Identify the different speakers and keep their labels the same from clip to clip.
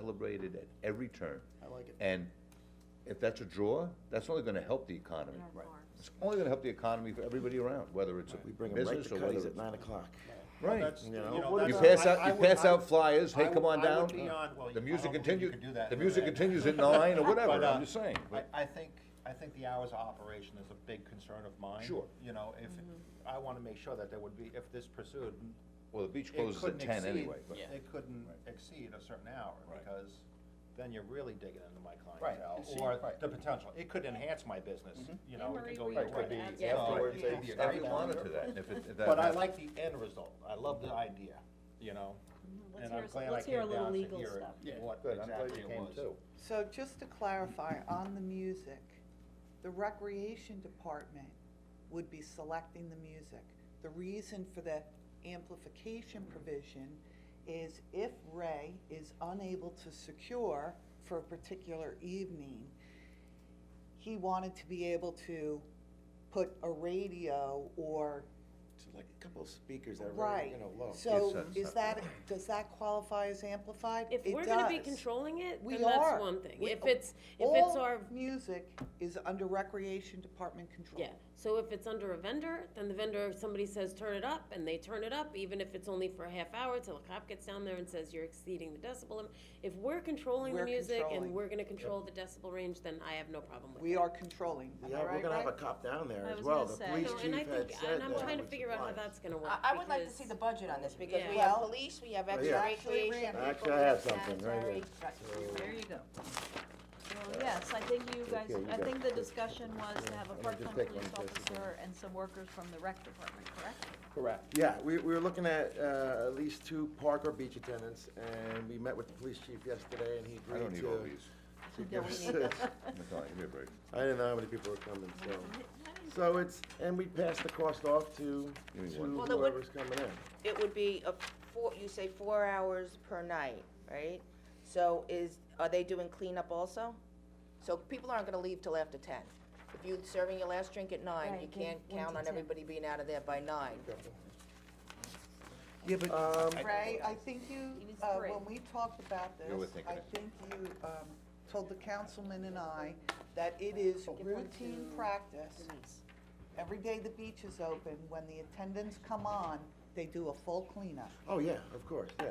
Speaker 1: celebrated at every turn.
Speaker 2: I like it.
Speaker 1: And if that's a draw, that's only gonna help the economy.
Speaker 3: in our farms.
Speaker 1: It's only gonna help the economy for everybody around, whether it's
Speaker 4: We
Speaker 1: a
Speaker 4: bring them right
Speaker 1: business
Speaker 4: to
Speaker 1: or whether
Speaker 4: Cuddy's
Speaker 1: it's.
Speaker 4: at nine o'clock.
Speaker 1: Right.
Speaker 2: That's,
Speaker 4: you
Speaker 2: you
Speaker 4: know,
Speaker 2: know,
Speaker 4: what
Speaker 1: You
Speaker 4: about-
Speaker 2: that's-
Speaker 1: pass
Speaker 2: I- I
Speaker 1: out, you
Speaker 2: would-
Speaker 1: pass
Speaker 2: I
Speaker 1: out
Speaker 2: would-
Speaker 1: flyers,
Speaker 2: I
Speaker 1: hey,
Speaker 2: would-
Speaker 1: come on
Speaker 2: I would
Speaker 1: down.
Speaker 2: be on- well,
Speaker 1: The
Speaker 2: I
Speaker 1: music
Speaker 2: don't think you
Speaker 1: continues,
Speaker 2: could do that
Speaker 1: the
Speaker 2: in
Speaker 1: music
Speaker 2: Riverhead.
Speaker 1: continues at nine or whatever,
Speaker 2: But, uh,
Speaker 1: I'm just saying.
Speaker 2: I,
Speaker 1: but-
Speaker 2: I think, I think the hours of operation is a big concern of mine.
Speaker 1: Sure.
Speaker 2: You know, if,
Speaker 4: Mm-hmm.
Speaker 2: I wanna make sure that there would be, if this pursued,
Speaker 1: Well, the beach
Speaker 2: it
Speaker 1: closes at
Speaker 2: couldn't
Speaker 1: ten
Speaker 2: exceed,
Speaker 1: anyway, but.
Speaker 2: it couldn't exceed a certain hour,
Speaker 1: Right.
Speaker 2: because then you're really digging into my
Speaker 4: Right,
Speaker 2: clientele,
Speaker 4: and see-
Speaker 2: or
Speaker 4: right. Mm-hmm.
Speaker 2: the potential, it could enhance my business, you know, it
Speaker 3: Anne-Marie,
Speaker 2: could go
Speaker 3: were you
Speaker 2: either
Speaker 3: gonna
Speaker 2: way.
Speaker 3: add
Speaker 2: You know,
Speaker 3: something?
Speaker 2: it could
Speaker 3: Afterwards,
Speaker 2: be a
Speaker 1: If you
Speaker 2: great
Speaker 1: wanted
Speaker 2: calendar.
Speaker 1: to that, and if it, if that.
Speaker 2: But I
Speaker 1: happens.
Speaker 2: like the end result, I love the idea, you know,
Speaker 3: Mm-hmm. Let's
Speaker 2: and
Speaker 3: hear
Speaker 2: I'm
Speaker 3: s-
Speaker 2: glad I
Speaker 3: let's hear a
Speaker 2: came
Speaker 3: little
Speaker 2: down to
Speaker 3: legal
Speaker 2: hear it,
Speaker 3: stuff.
Speaker 4: Yeah.
Speaker 2: what
Speaker 1: Good, I'm glad
Speaker 2: exactly
Speaker 1: you
Speaker 2: it
Speaker 1: came
Speaker 2: was.
Speaker 1: too.
Speaker 5: So just to clarify, on the music, the recreation department would be selecting the music. The reason for the amplification provision is if Ray is unable to secure for a particular evening, he wanted to be able to put a radio or,
Speaker 4: So like a couple of speakers that are,
Speaker 5: right.
Speaker 4: you know, low.
Speaker 1: Yes,
Speaker 5: So
Speaker 1: that's
Speaker 5: is
Speaker 1: not
Speaker 5: that,
Speaker 1: bad.
Speaker 5: does that qualify as amplified?
Speaker 3: If
Speaker 5: It
Speaker 3: we're gonna be
Speaker 5: does.
Speaker 3: controlling it,
Speaker 5: We
Speaker 3: then that's
Speaker 5: are.
Speaker 3: one thing.
Speaker 5: We-
Speaker 3: If it's, if it's
Speaker 5: All
Speaker 3: our,
Speaker 5: music is under recreation department control.
Speaker 3: yeah, so if it's under a vendor, then the vendor, if somebody says turn it up, and they turn it up, even if it's only for a half hour, till a cop gets down there and says you're exceeding the decibel limit. If we're controlling the
Speaker 5: We're
Speaker 3: music and
Speaker 5: controlling.
Speaker 3: we're gonna control the decibel range, then I have no problem with it.
Speaker 5: We are controlling, am
Speaker 4: Yeah,
Speaker 5: I
Speaker 4: we're
Speaker 5: right,
Speaker 4: gonna have a
Speaker 5: Ray?
Speaker 4: cop down there
Speaker 6: I
Speaker 4: as
Speaker 6: was
Speaker 4: well,
Speaker 6: gonna
Speaker 4: the
Speaker 6: say.
Speaker 4: police
Speaker 3: No,
Speaker 4: chief
Speaker 3: and I
Speaker 4: had
Speaker 3: think,
Speaker 4: said
Speaker 3: and I'm
Speaker 4: that
Speaker 3: trying to
Speaker 4: with
Speaker 3: figure out how
Speaker 4: supplies.
Speaker 3: that's gonna work.
Speaker 6: I, I would like to
Speaker 3: because-
Speaker 6: see the budget on this, because we
Speaker 3: Yeah.
Speaker 6: have police, we have extra
Speaker 4: yeah.
Speaker 5: Actually,
Speaker 6: recreation.
Speaker 5: Randy.
Speaker 6: people,
Speaker 4: Actually, I
Speaker 6: we
Speaker 4: have
Speaker 6: have
Speaker 4: something right here.
Speaker 6: sanitary.
Speaker 7: There you go. Well, yes, I think you guys,
Speaker 4: Okay, you
Speaker 7: I
Speaker 4: got-
Speaker 7: think the discussion was to have a
Speaker 4: I'm gonna just
Speaker 7: part-time
Speaker 4: take
Speaker 7: police
Speaker 4: one, just a
Speaker 7: officer and some workers from the rec department, correct?
Speaker 2: Correct.
Speaker 4: Yeah, we, we were looking at, uh, at least two park or beach attendants, and we met with the police chief yesterday, and he
Speaker 1: I don't
Speaker 4: agreed
Speaker 1: need
Speaker 4: to.
Speaker 1: all
Speaker 2: uh,
Speaker 1: these.
Speaker 4: to give us this.
Speaker 1: Nathaniel, give me a break.
Speaker 4: I didn't know how many people were coming, so. So it's, and we passed the cost off to,
Speaker 1: Give me
Speaker 4: to
Speaker 1: one.
Speaker 6: Well, the wood-
Speaker 4: whoever's coming in.
Speaker 6: It would be a four, you say four hours per night, right? So is, are they doing cleanup also? So people aren't gonna leave till after ten. If you're serving your last drink at nine,
Speaker 7: Right,
Speaker 6: you
Speaker 7: one-
Speaker 6: can't
Speaker 7: one
Speaker 6: count
Speaker 7: to
Speaker 6: on
Speaker 7: 10.
Speaker 6: everybody being out of there by nine.
Speaker 1: Yeah, but.
Speaker 4: Um,
Speaker 5: Ray, I think you,
Speaker 7: He needs
Speaker 5: uh,
Speaker 7: three.
Speaker 5: when we talked about this,
Speaker 1: You were thinking
Speaker 5: I
Speaker 1: it.
Speaker 5: think you, um, told the councilman and I that it is routine practice. Every day the beach is open, when the attendants come on, they do a full cleanup.
Speaker 4: oh, yeah, of course, yeah.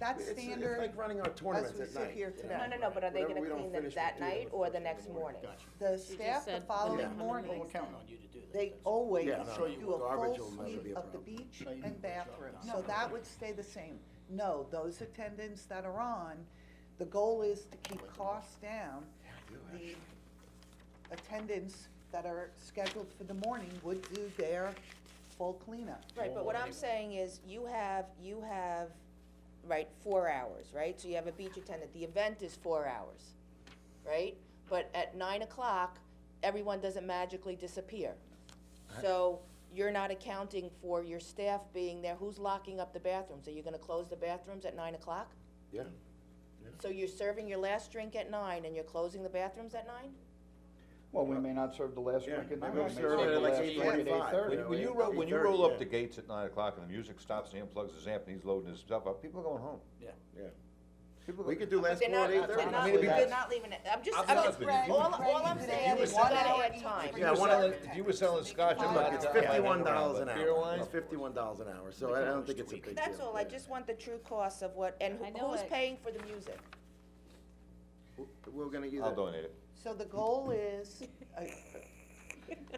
Speaker 5: That's
Speaker 4: It's-
Speaker 5: standard.
Speaker 4: It's like running our tournaments
Speaker 5: we
Speaker 4: at
Speaker 5: sit
Speaker 4: night.
Speaker 5: here
Speaker 4: you know.
Speaker 5: today.
Speaker 6: No, no, no, but are they
Speaker 4: Whatever
Speaker 6: gonna
Speaker 4: we don't
Speaker 6: clean them
Speaker 4: finish, we
Speaker 6: that
Speaker 4: do it
Speaker 6: night
Speaker 4: the
Speaker 6: or the
Speaker 4: first
Speaker 6: next
Speaker 4: thing in the
Speaker 6: morning?
Speaker 5: The
Speaker 3: She just
Speaker 5: staff the
Speaker 3: said
Speaker 5: following
Speaker 3: cleanup.
Speaker 5: morning.
Speaker 3: Well, we're
Speaker 5: counting on you to do that. They always do
Speaker 4: Yeah, no, no,
Speaker 5: a
Speaker 4: garbage
Speaker 5: full
Speaker 4: will never be
Speaker 5: sweep
Speaker 4: a
Speaker 5: of the
Speaker 4: problem.
Speaker 5: beach and bathroom, so that would stay the same. No, those attendants that are on, the goal is to keep costs down. The attendants that are scheduled for the morning would do their full cleanup.
Speaker 6: Right, but what I'm saying is, you have, you have, right, four hours, right? So you have a beach attendant, the event is four hours, right? But at nine o'clock, everyone doesn't magically disappear. So you're not accounting for your staff being there, who's locking up the bathrooms? Are you gonna close the bathrooms at nine o'clock?
Speaker 4: Yeah,
Speaker 6: So you're serving your last drink at nine and you're closing the bathrooms at nine?
Speaker 8: Well, we may not serve the last
Speaker 4: Yeah,
Speaker 8: drink, and
Speaker 4: maybe
Speaker 8: then we
Speaker 4: we'll
Speaker 8: may
Speaker 4: serve
Speaker 8: serve
Speaker 4: it
Speaker 8: the
Speaker 4: at like
Speaker 8: last drink at
Speaker 4: 8:45,
Speaker 8: eight
Speaker 4: you
Speaker 8: thirty.
Speaker 4: know,
Speaker 1: When you
Speaker 4: eight-
Speaker 1: roll, when you
Speaker 4: 8:30,
Speaker 1: roll
Speaker 4: yeah.
Speaker 1: up the gates at nine o'clock and the music stops and he unplugs his amp and he's loading his stuff up, people are going home.
Speaker 4: yeah.
Speaker 1: People
Speaker 4: We
Speaker 1: go-
Speaker 4: could do last
Speaker 6: They're
Speaker 4: one at
Speaker 6: not,
Speaker 4: eight
Speaker 6: they're
Speaker 4: thirty.
Speaker 6: not, they're not leaving it, I'm just,
Speaker 1: I'm
Speaker 6: I'm
Speaker 1: not
Speaker 6: just,
Speaker 1: with you.
Speaker 6: all, all I'm
Speaker 5: Ray,
Speaker 6: saying
Speaker 5: you
Speaker 6: is you
Speaker 5: were
Speaker 6: gotta
Speaker 5: saying-
Speaker 6: add time.
Speaker 1: You were
Speaker 4: one hour
Speaker 1: selling, you were selling scotch, everybody
Speaker 4: It's
Speaker 1: got my hand
Speaker 4: fifty-one
Speaker 1: around,
Speaker 4: dollars
Speaker 1: but
Speaker 4: an
Speaker 1: Beer
Speaker 4: hour,
Speaker 1: wine?
Speaker 4: it's fifty-one dollars an hour, so I don't think it's a big deal.
Speaker 6: That's all, I
Speaker 4: Yeah.
Speaker 6: just want the true cost of what, and who-
Speaker 7: I know
Speaker 6: who's
Speaker 7: it.
Speaker 6: paying for the music?
Speaker 4: We're gonna either.
Speaker 1: I'll donate it.
Speaker 5: So the goal is, uh,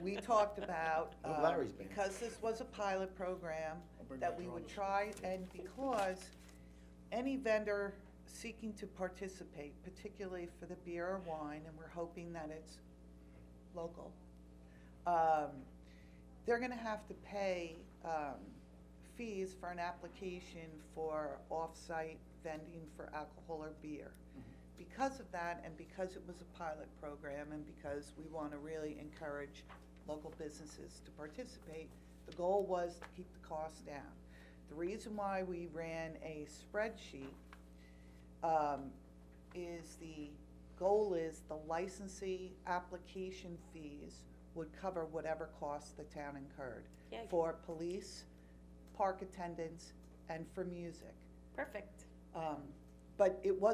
Speaker 5: we talked about,
Speaker 4: Oh,
Speaker 5: um,
Speaker 4: Larry's band.
Speaker 5: because this was a pilot program, that we would try, and because any vendor seeking to participate, particularly for the beer or wine, and we're hoping that it's local, um, they're gonna have to pay, um, fees for an application for off-site vending for alcohol or beer because of that and because it was a pilot program and because we want to really encourage local businesses to participate, the goal was to keep the costs down. The reason why we ran a spreadsheet, um, is the, goal is the licensee application fees would cover whatever costs the town incurred
Speaker 3: Yeah.
Speaker 5: for police, park attendants, and for music.
Speaker 3: Perfect.
Speaker 5: Um, but it was